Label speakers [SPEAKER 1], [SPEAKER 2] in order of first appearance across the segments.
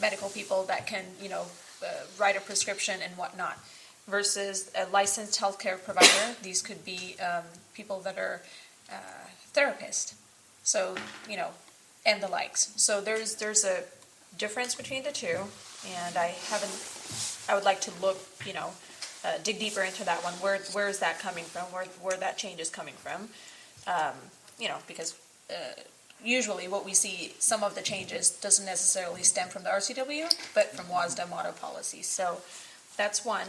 [SPEAKER 1] medical people that can, you know, uh, write a prescription and whatnot. Versus a licensed healthcare provider, these could be um, people that are uh, therapists, so you know, and the likes. So there's there's a difference between the two, and I haven't. I would like to look, you know, uh, dig deeper into that one. Where where is that coming from? Where where that change is coming from? Um, you know, because usually what we see, some of the changes doesn't necessarily stem from the RCW, but from WASDA model policies. So that's one.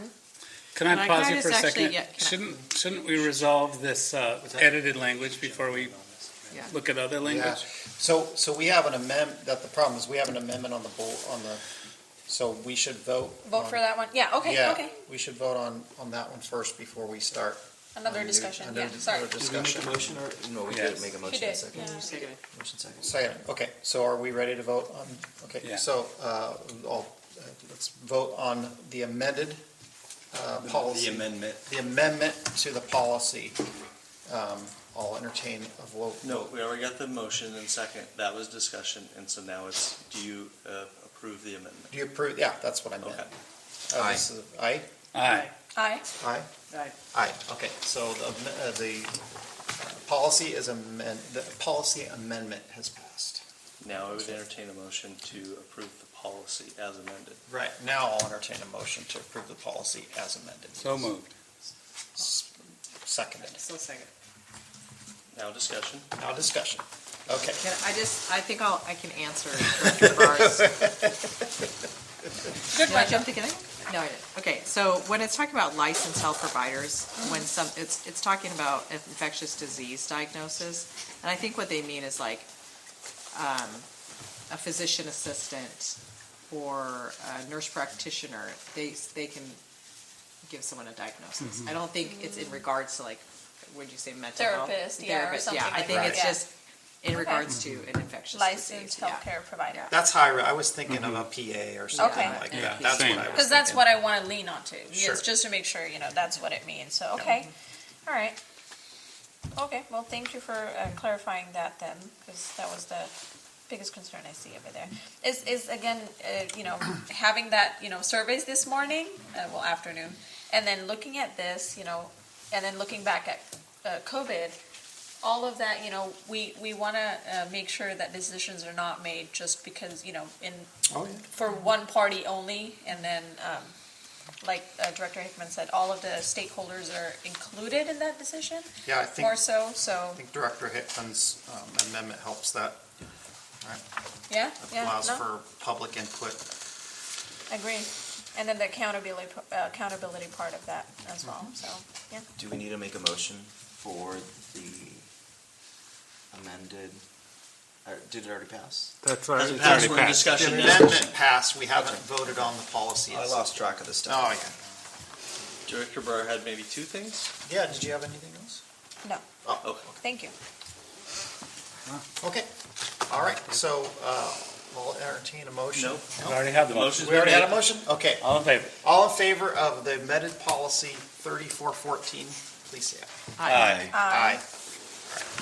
[SPEAKER 2] Can I
[SPEAKER 3] Can I-
[SPEAKER 2] pause
[SPEAKER 3] can I
[SPEAKER 2] you for a
[SPEAKER 3] just actually-
[SPEAKER 2] second?
[SPEAKER 3] yeah, can I-
[SPEAKER 2] Shouldn't, shouldn't we resolve this uh, edited language before we
[SPEAKER 3] Yeah.
[SPEAKER 2] look at other
[SPEAKER 4] Yeah,
[SPEAKER 2] language?
[SPEAKER 4] so, so we have an amendment, that the problem is, we have an amendment on the bo on the, so we should vote.
[SPEAKER 1] Vote for
[SPEAKER 4] on-
[SPEAKER 1] that one? Yeah, okay,
[SPEAKER 4] Yeah,
[SPEAKER 1] okay.
[SPEAKER 4] We should vote on, on that one first before we start.
[SPEAKER 1] Another
[SPEAKER 4] on the-
[SPEAKER 1] discussion,
[SPEAKER 4] another
[SPEAKER 1] yeah,
[SPEAKER 4] dis-
[SPEAKER 1] sorry.
[SPEAKER 4] another
[SPEAKER 5] Did we make a
[SPEAKER 4] Discussion.
[SPEAKER 5] motion or, no, we
[SPEAKER 2] Yes.
[SPEAKER 5] did make a
[SPEAKER 1] She
[SPEAKER 5] motion in a
[SPEAKER 1] did,
[SPEAKER 5] second.
[SPEAKER 1] yeah.
[SPEAKER 5] Motion second.
[SPEAKER 4] Second, okay, so are we ready to vote on, okay,
[SPEAKER 2] Yeah.
[SPEAKER 4] so, uh, I'll, uh, let's vote on the amended, uh, policy.
[SPEAKER 5] The amendment.
[SPEAKER 4] The amendment to the policy. Um, I'll entertain a vote.
[SPEAKER 6] No, we already got the motion and second, that was discussion, and so now it's, do you uh, approve the amendment?
[SPEAKER 4] Do you approve, yeah, that's what I meant.
[SPEAKER 6] Okay.
[SPEAKER 4] Uh, this is- Aye?
[SPEAKER 2] Aye.
[SPEAKER 1] Aye,
[SPEAKER 4] Aye?
[SPEAKER 3] Aye.
[SPEAKER 4] Aye, okay, so the, am- uh, the uh, policy is amend, the policy amendment has passed.
[SPEAKER 6] Now I would entertain a motion to approve the policy as amended.
[SPEAKER 4] Right, now I'll entertain a motion to approve the policy as amended.
[SPEAKER 2] So moved.
[SPEAKER 4] S- Seconded.
[SPEAKER 3] So second.
[SPEAKER 6] Now discussion.
[SPEAKER 4] Now discussion. Okay.
[SPEAKER 3] Can I just, I think I'll, I can answer Director Barr's.
[SPEAKER 1] good
[SPEAKER 3] Did I
[SPEAKER 1] one.
[SPEAKER 3] jump the gun? No, I didn't. Okay, so when it's talking about licensed health providers,
[SPEAKER 1] Mm-hmm.
[SPEAKER 3] when some, it's, it's talking about infectious disease diagnosis. And I think what they mean is like, um, a physician assistant or a nurse practitioner, they, they can give someone a diagnosis. I don't think it's in regards to like, would you say mental health?
[SPEAKER 1] Therapist, yeah, or
[SPEAKER 3] Therapist,
[SPEAKER 1] something
[SPEAKER 3] I
[SPEAKER 1] like
[SPEAKER 3] think
[SPEAKER 1] that,
[SPEAKER 3] it's
[SPEAKER 1] yeah.
[SPEAKER 3] just in regards to an infectious disease,
[SPEAKER 1] Licensed
[SPEAKER 3] yeah.
[SPEAKER 1] healthcare provider.
[SPEAKER 3] Yeah.
[SPEAKER 4] That's how I, re- I was thinking of a PA or something
[SPEAKER 1] Okay.
[SPEAKER 4] like
[SPEAKER 2] Mm-hmm. Yeah,
[SPEAKER 4] that. That's what I
[SPEAKER 2] same.
[SPEAKER 4] was thinking.
[SPEAKER 1] Because that's what I want to lean on to,
[SPEAKER 4] Sure.
[SPEAKER 1] yes, just to make sure, you know, that's what it means, so, okay, all right. Okay, well, thank you for uh, clarifying that then, because that was the biggest concern I see over there. Is, is again, uh, you know, having that, you know, surveys this morning, uh, well, afternoon, and then looking at this, you know, and then looking back at uh, COVID, all of that, you know, we, we want to make sure that decisions are not made just because, you know, in,
[SPEAKER 4] Oh, yeah.
[SPEAKER 1] for one party only, and then, um, like uh, Director Hickman said, all of the stakeholders are included in that decision,
[SPEAKER 4] Yeah, I think,
[SPEAKER 1] more
[SPEAKER 4] I
[SPEAKER 1] so, so,
[SPEAKER 4] think Director Hickman's um, amendment helps that.
[SPEAKER 1] yeah,
[SPEAKER 4] It
[SPEAKER 1] yeah,
[SPEAKER 4] allows
[SPEAKER 1] no,
[SPEAKER 4] for public input.
[SPEAKER 1] agree. And then the accountability, p- uh, accountability part of that as
[SPEAKER 4] Mm-hmm.
[SPEAKER 1] well, so, yeah.
[SPEAKER 5] Do we need to make a motion for the amended, or did it already pass?
[SPEAKER 2] That's
[SPEAKER 6] Hasn't passed, we're in
[SPEAKER 4] The
[SPEAKER 6] discussion now.
[SPEAKER 4] amendment passed, we haven't voted on the policy.
[SPEAKER 5] I lost track of the stuff.
[SPEAKER 4] Oh, yeah.
[SPEAKER 6] Director Burr had maybe two things?
[SPEAKER 4] Yeah, did you have anything else?
[SPEAKER 1] No.
[SPEAKER 4] Oh,
[SPEAKER 6] Okay.
[SPEAKER 1] Thank you.
[SPEAKER 4] okay. All right, so uh, we'll entertain a motion.
[SPEAKER 6] No.
[SPEAKER 2] We already have the motion.
[SPEAKER 6] Motion's
[SPEAKER 4] We
[SPEAKER 6] been
[SPEAKER 4] already had a
[SPEAKER 6] made.
[SPEAKER 4] motion? Okay.
[SPEAKER 2] All in favor?
[SPEAKER 4] All in favor of the amended policy 3414, please say aye.
[SPEAKER 2] Aye.
[SPEAKER 4] Aye.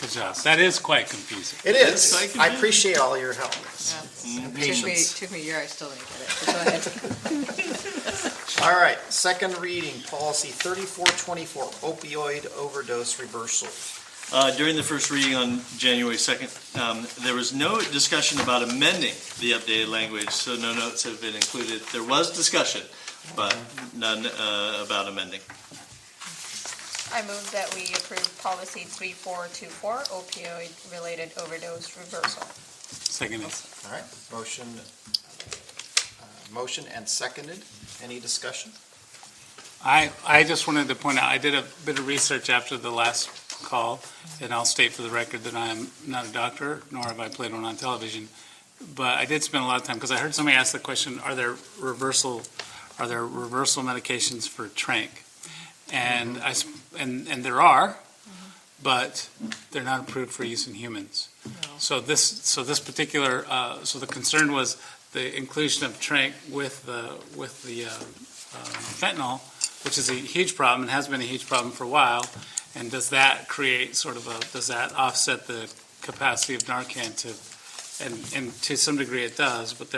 [SPEAKER 2] Good job. That is quite confusing.
[SPEAKER 4] It
[SPEAKER 6] Yes,
[SPEAKER 4] is.
[SPEAKER 6] I can
[SPEAKER 4] I
[SPEAKER 6] do it.
[SPEAKER 4] appreciate all your help.
[SPEAKER 3] Yeah.
[SPEAKER 4] And
[SPEAKER 3] Took me,
[SPEAKER 4] patience.
[SPEAKER 3] took me a year, I still didn't get it. But Go ahead.
[SPEAKER 4] All right, second reading, policy 3424, opioid overdose reversal.
[SPEAKER 6] Uh, During the first reading on January 2nd, um, there was no discussion about amending the updated language, so no notes have been included. There was discussion, but none uh, about amending.
[SPEAKER 1] I move that we approve policy 3424, opioid-related overdose reversal.
[SPEAKER 2] Second is,
[SPEAKER 4] All right, motion, uh, motion and seconded. Any discussion?
[SPEAKER 2] I, I just wanted to point out, I did a bit of research after the last call, and I'll state for the record that I am not a doctor, nor have I played one on television. But I did spend a lot of time, because I heard somebody ask the question, are there reversal, are there reversal medications for trank? And I, s- and, and there are, but they're not approved for use in humans. So this, so this particular, uh, so the concern was the inclusion of trank with the, with the, uh, um, fentanyl, which is a huge problem and has been a huge problem for a while. And does that create sort of a, does that offset the capacity of Narcan to, and, and to some degree it does, but there